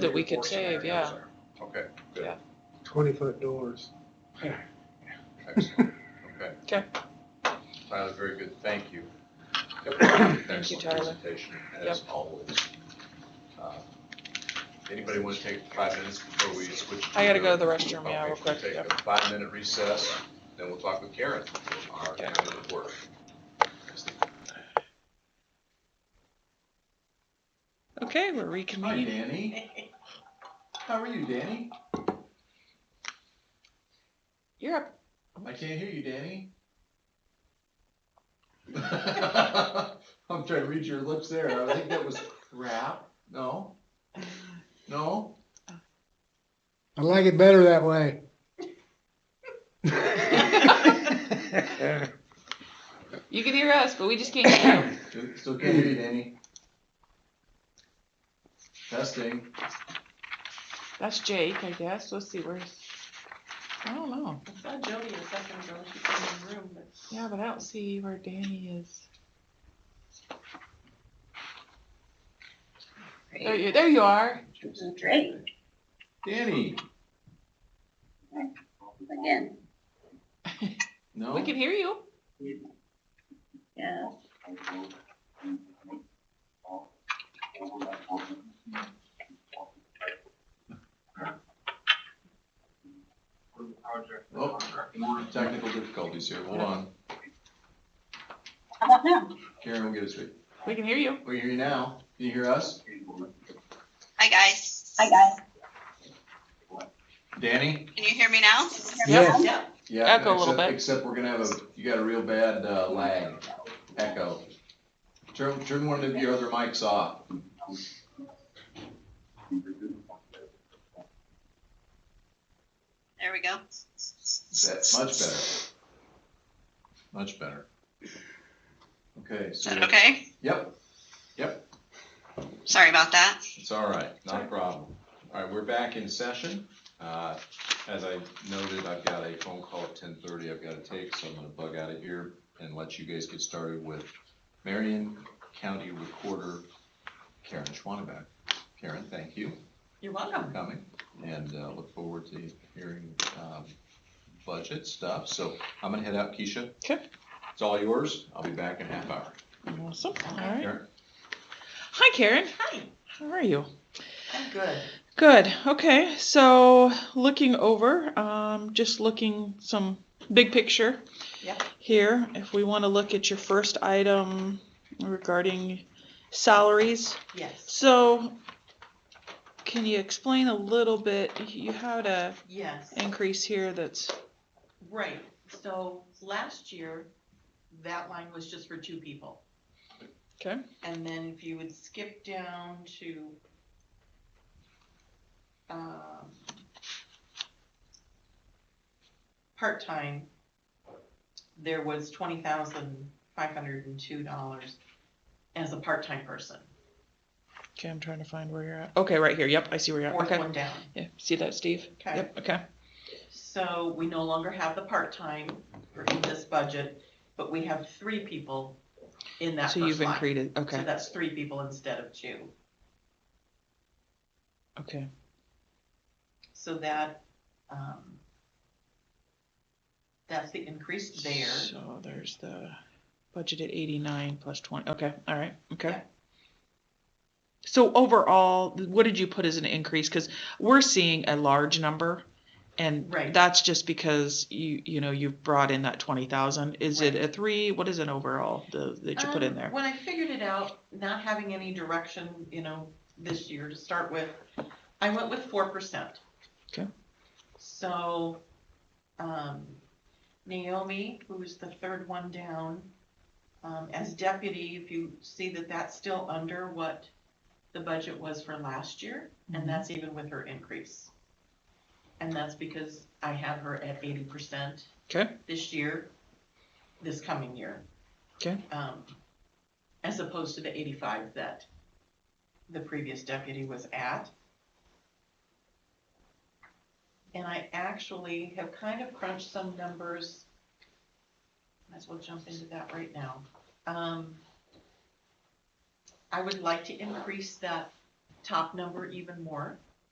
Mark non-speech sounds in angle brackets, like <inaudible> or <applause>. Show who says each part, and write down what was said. Speaker 1: that we
Speaker 2: three or four
Speaker 1: could save,
Speaker 2: scenarios
Speaker 1: yeah.
Speaker 2: there.
Speaker 3: Okay, good.
Speaker 1: Yeah.
Speaker 4: Twenty-foot doors.
Speaker 3: Excellent. Okay.
Speaker 1: <laughs> Okay.
Speaker 3: Tyler, very good. Thank you.
Speaker 1: Thank you,
Speaker 3: Excellent
Speaker 1: Tyler.
Speaker 3: presentation, as always. Uh, Anybody want to take five minutes before we switch?
Speaker 1: I gotta go to
Speaker 3: the
Speaker 1: the restroom, yeah, real quick,
Speaker 3: Take
Speaker 1: yeah.
Speaker 3: a five-minute recess, then we'll talk with Karen, our
Speaker 1: Okay.
Speaker 3: county reporter.
Speaker 1: Okay, we're
Speaker 3: Hi,
Speaker 1: reconvening.
Speaker 3: Danny. How are you, Danny?
Speaker 1: You're up.
Speaker 3: I can't hear you, Danny. I'm trying to read your lips there. I think that was crap. No? No?
Speaker 4: I like it better that way. <laughs>
Speaker 1: You can hear us, but we just can't hear you. <coughs>
Speaker 3: It's okay to hear you, Danny. Testing.
Speaker 1: That's Jake, I guess. Let's see, where's, I don't know.
Speaker 5: I saw Jody a second ago, she came in the room, but.
Speaker 1: Yeah, but I don't see where Danny is. There you, there you are.
Speaker 6: This is great,
Speaker 3: Danny.
Speaker 6: again,
Speaker 3: No?
Speaker 1: We can hear you.
Speaker 6: yeah.
Speaker 3: Oh, technical difficulties here. Hold on.
Speaker 6: How about now?
Speaker 3: Karen will get us straight.
Speaker 1: We can hear you.
Speaker 3: We can hear you now. Can you hear us?
Speaker 7: Hi guys,
Speaker 6: Hi, guys.
Speaker 3: Danny?
Speaker 7: can you hear me now?
Speaker 4: Yes.
Speaker 5: Yeah.
Speaker 3: Yeah.
Speaker 1: Echo a little
Speaker 3: except-
Speaker 1: bit.
Speaker 3: Except we're gonna have a, you got a real bad uh, lag, echo. Turn, turn one of your other mics off.
Speaker 7: There we go.
Speaker 3: That's much better. Much better. Okay,
Speaker 7: Is
Speaker 3: so.
Speaker 7: that okay?
Speaker 3: Yep,
Speaker 7: Sorry about that.
Speaker 3: it's all right, not a problem. All right, we're back in session. Uh, As I noted, I've got a phone call at ten thirty I've gotta take, so I'm gonna bug out of here and let you guys get started with Marion County Recorder Karen Schwanenbeck. Karen, thank you.
Speaker 5: You're welcome.
Speaker 3: for coming and uh, look forward to hearing um, budget stuff. So I'm gonna head out, Keisha.
Speaker 1: Okay.
Speaker 3: It's all yours. I'll be back in a half hour.
Speaker 1: Awesome. All right.
Speaker 3: Karen?
Speaker 1: Hi, Karen.
Speaker 5: Hi,
Speaker 1: How are you?
Speaker 5: I'm good.
Speaker 1: Good. Okay. So looking over, um, just looking some big picture
Speaker 5: Yep.
Speaker 1: here. If we want to look at your first item regarding salaries.
Speaker 5: Yes,
Speaker 1: So can you explain a little bit, you had a
Speaker 5: yes.
Speaker 1: increase here that's,
Speaker 5: Right, so last year, that line was just for two people.
Speaker 1: Okay.
Speaker 5: And then if you would skip down to, um, part-time, there was twenty thousand five hundred and two dollars as a part-time person.
Speaker 1: okay, I'm trying to find where you're at. Okay, right here. Yep, I see where you're at.
Speaker 5: Fourth
Speaker 1: Okay.
Speaker 5: one down.
Speaker 1: Yeah, see that, Steve?
Speaker 5: Okay.
Speaker 1: Yep, okay.
Speaker 5: So we no longer have the part-time for in this budget, but we have three people in that
Speaker 1: So you've
Speaker 5: first line.
Speaker 1: increased,
Speaker 5: So
Speaker 1: okay,
Speaker 5: that's three people instead of two.
Speaker 1: okay.
Speaker 5: So that, um, that's the increase there.
Speaker 1: So there's the budgeted eighty-nine plus twenty, okay, all right, okay.
Speaker 5: Yeah.
Speaker 1: So overall, what did you put as an increase? Cause we're seeing a large number. And
Speaker 5: Right.
Speaker 1: that's just because you, you know, you've brought in that twenty thousand. Is it
Speaker 5: Right.
Speaker 1: a three? What is an overall the, that you put in
Speaker 5: Um,
Speaker 1: there?
Speaker 5: When I figured it out, not having any direction, you know, this year to start with, I went with four percent.
Speaker 1: Okay.
Speaker 5: So, um, Naomi, who is the third one down, um, as deputy, if you see that that's still under what the budget was for last year,
Speaker 1: Mhm.
Speaker 5: and that's even with her increase. And that's because I have her at eighty percent
Speaker 1: Okay,
Speaker 5: this year, this coming year.
Speaker 1: Okay.
Speaker 5: Um, as opposed to the eighty-five that the previous deputy was at. And I actually have kind of crunched some numbers. Might as well jump into that right now. Um, I would like to increase that top number even more.